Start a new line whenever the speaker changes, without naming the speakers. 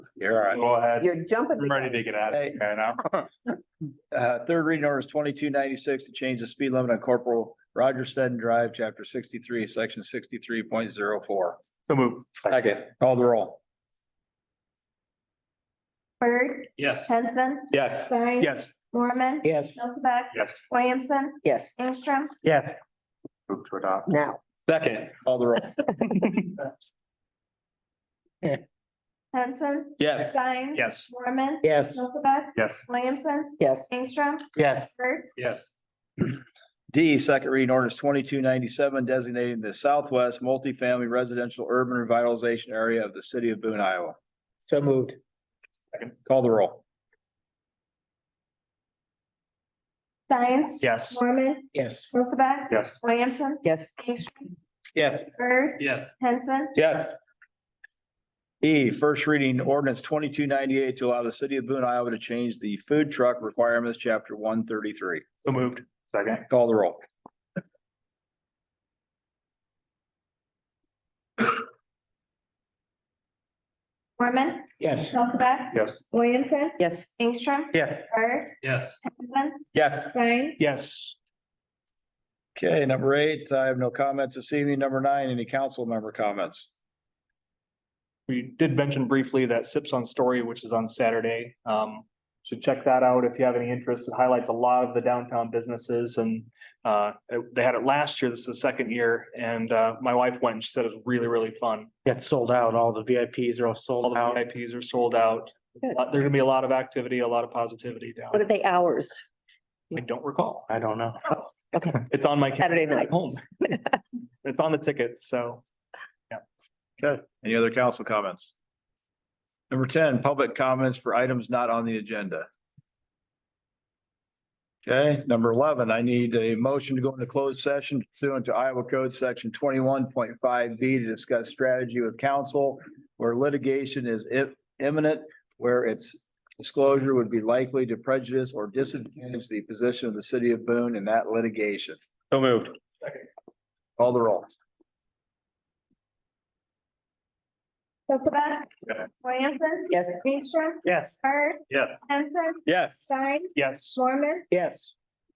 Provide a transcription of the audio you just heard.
You're all right.
Go ahead.
You're jumping. the
I'm ready to get out of
Hey.
here now.
Uh, third reading orders twenty-two ninety-six to change the speed limit on Corporal Roger Sutton Drive, chapter sixty-three, section sixty-three point zero four.
So move.
Second, call the roll.
Bird,
Yes.
Henson,
Yes.
Stein.
Yes.
Mormon.
Yes,
Elizabeth,
Yes.
Williamson,
yes,
Ingstrom,
Yes. Move to adopt.
now.
Second.
Call the roll.
Henson,
Yes.
Stein.
Yes.
Mormon.
Yes,
Elizabeth,
Yes.
Williamson,
yes,
Ingstrom,
yes,
Bird,
Yes.
D, second reading orders twenty-two ninety-seven designating the southwest multifamily residential urban revitalization area of the city of Boone, Iowa.
so moved.
Call the roll.
Stein.
Yes.
Mormon,
Yes.
Elizabeth,
Yes.
Williamson,
Yes,
Ingstrom,
Yes.
Bird,
Yes.
Henson,
Yes.
E, first reading ordinance twenty-two ninety-eight to allow the city of Boone, Iowa to change the food truck requirements, chapter one thirty-three.
So moved. Second.
Call the roll.
Mormon,
yes.
Elizabeth,
Yes.
Williamson,
Yes,
Ingstrom,
Yes.
Bird,
Yes.
Henson,
Yes.
Stein.
Yes.
Okay, number eight, I have no comments this evening. Number nine, any council member comments?
We did mention briefly that Sips on Story, which is on Saturday. Um, should check that out if you have any interest. It highlights a lot of the downtown businesses and uh, it- they had it last year. This is the second year and uh, my wife went and she said it was really, really fun.
Got sold out. All the VIPs are all
All
sold
the
out.
VIPs are sold out.
Good.
Uh, There's gonna be a lot of activity, a lot of positivity down.
what are they hours?
I don't recall.
I don't know.
Oh, Okay,
It's on my.
Saturday night.
Home. It's on the ticket, so.
Any other council comments? Number ten, public comments for items not on the agenda. Okay, number eleven, I need a motion to go into closed session pursuant to Iowa Code Section twenty-one point five B to discuss strategy with counsel where litigation is i- imminent, where its disclosure would be likely to prejudice or disadvantage the position of the city of Boone in that litigation.
So moved.
Call the roll.
Elizabeth.
Yes.
Williamson.
yes.
Ingstrom,
Yes.
Bird,
Yes.
Henson,
Yes.
Stein,
Yes.
Mormon,
Yes.